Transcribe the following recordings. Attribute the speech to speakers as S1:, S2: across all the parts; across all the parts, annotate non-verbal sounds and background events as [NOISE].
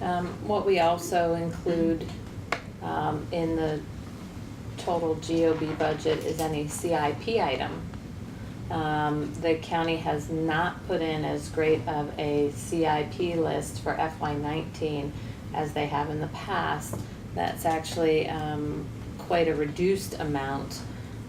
S1: Um, What we also include um, in the total GOB budget is any CIP item. Um, The county has not put in as great of a CIP list for FY nineteen as they have in the past. That's actually um, quite a reduced amount.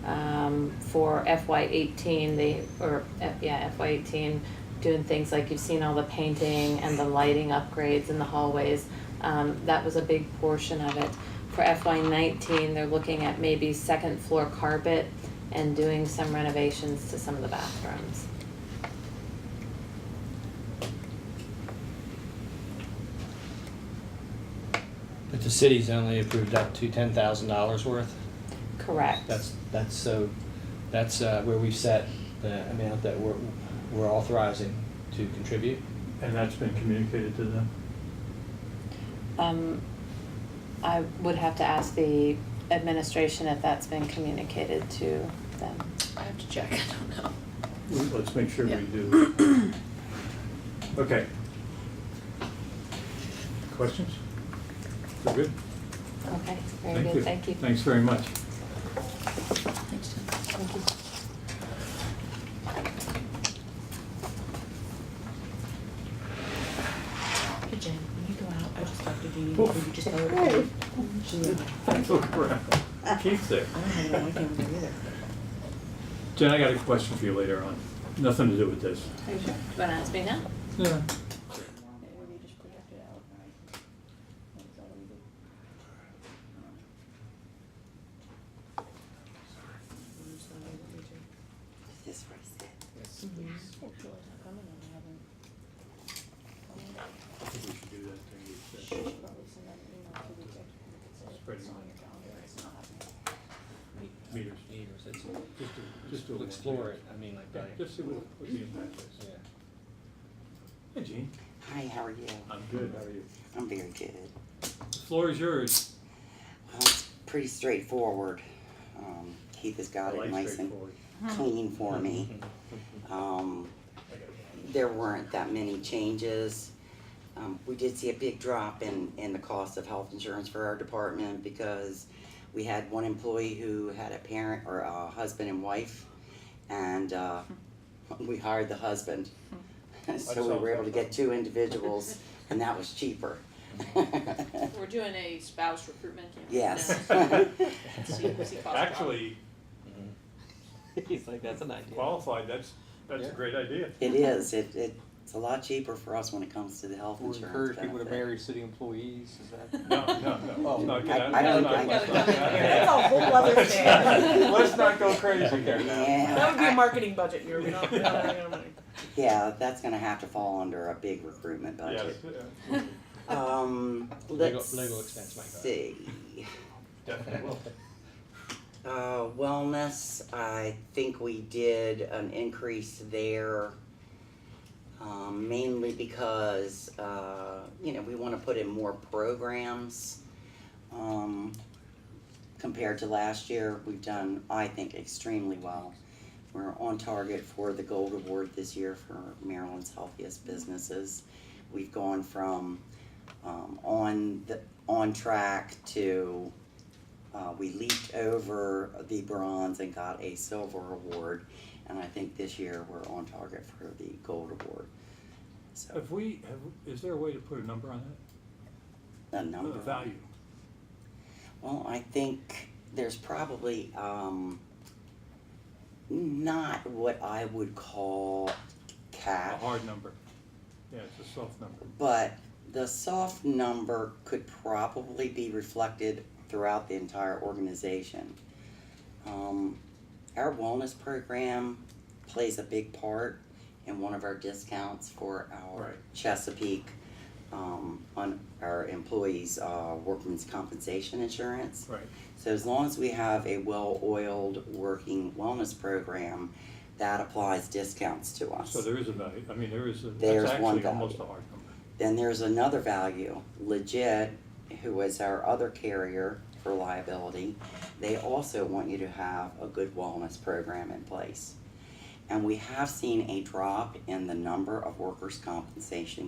S1: Um, For FY eighteen, they, or, uh, yeah, FY eighteen, doing things like you've seen all the painting and the lighting upgrades in the hallways. Um, that was a big portion of it. For FY nineteen, they're looking at maybe second floor carpet and doing some renovations to some of the bathrooms.
S2: But the city's only approved up to ten thousand dollars worth.
S1: Correct.
S2: That's, that's so, that's uh, where we've set the amount that we're, we're authorizing to contribute.
S3: And that's been communicated to them?
S1: Um, I would have to ask the administration if that's been communicated to them.
S4: I have to check, [LAUGHS] I don't know. Mm-hmm.
S3: Let's make sure we
S4: Yeah.
S3: do.
S4: [COUGHS]
S3: Okay. Questions? We're good?
S1: Okay, very good, thank you.
S3: Thanks very much. [LAUGHS]
S4: Thanks, Jen.
S1: Thank you.
S4: Hey, Jen, when you go out, I just talked to Dee, Dee, or you just know her. She's like, I
S3: Thanks, look around. Keith's there.
S4: don't have it on my camera either.
S3: Jen, I got a question for you later on. Nothing to do with this.
S1: Are you sure? Do you wanna ask me now?
S3: Yeah.
S1: This first.
S3: I think we should do that during the session. Spread it on. Meters.
S2: Meters, it's-
S3: Just do- Just do it.
S2: We'll
S3: once.
S2: Explore it, I mean, like,
S3: Yeah,
S2: that.
S3: Just see what what the impact is.
S2: yeah.
S3: Hey, Gene.
S5: Hi, how are you?
S3: I'm good, how are you?
S5: I'm very good.
S3: The floor is yours.
S5: Well, it's pretty straightforward. Um, Keith has got
S3: I
S5: it
S3: like
S5: nice and
S3: straightforward.
S5: clean for me. Um, there weren't that many changes. Um, we did see a big drop in, in the cost of health insurance for our department because we had one employee who had a parent or a husband and wife, and uh, [LAUGHS] we hired the husband. [LAUGHS] so we were able to get two individuals, and that was cheaper.
S6: We're doing a spouse recruitment campaign.
S5: yes.
S6: now. See- see cost drop.
S3: Actually,
S2: [LAUGHS] He's like, that's an idea.
S3: qualified, that's, that's a
S2: Yeah.
S3: great
S5: [LAUGHS]
S3: idea.
S5: It is, it, it, it's a lot cheaper for us when it comes to the health
S7: Would
S5: insurance
S7: encourage people to
S5: benefit.
S7: marry city employees, is that?
S4: [LAUGHS]
S3: No, no, no,
S7: Oh.
S3: no, get
S5: I-
S3: out,
S5: I
S3: let's
S5: don't-
S3: not, [LAUGHS]
S5: I-
S3: let's not.
S4: That's a whole
S3: [LAUGHS]
S4: other
S3: Let's
S4: thing.
S3: not- Let's not go crazy here now.
S4: That
S5: Yeah,
S4: would be a
S5: I-
S4: marketing budget year, we don't, we don't have any money.
S5: yeah, that's gonna have to fall under a big recruitment
S3: Yes,
S5: budget. Um,
S2: Legal-
S5: let's
S2: legal expense might go up.
S5: see.
S3: definitely will.
S5: Uh, wellness, I think we did an increase there. Um, mainly because, uh, you know, we wanna put in more programs. Um, compared to last year, we've done, I think, extremely well. We're on target for the gold award this year for Maryland's healthiest businesses. We've gone from, um, on the, on track to, uh, we leaped over the bronze and got a silver award, and I think this year we're on target for the gold award. So,
S3: Have we, have, is there a way to put a number on
S5: the
S3: that? A
S5: number.
S3: value?
S5: Well, I think there's probably um, not what I would call
S3: A
S5: cash,
S3: hard number? Yeah, it's a soft number.
S5: but the soft number could probably be reflected throughout the entire organization. Um, our wellness program plays a big part in one of our discounts for our
S3: Right.
S5: Chesapeake um, on our employees' uh, workman's compensation insurance.
S3: Right.
S5: So as long as we have a well-oiled working wellness program, that applies discounts to us.
S3: So there is a value, I mean, there is, a-
S5: There's
S3: that's
S5: one
S3: actually
S5: value.
S3: almost a hard number.
S5: Then there's another value, Legit, who is our other carrier for liability, they also want you to have a good wellness program in place. And we have seen a drop in the number of workers' compensation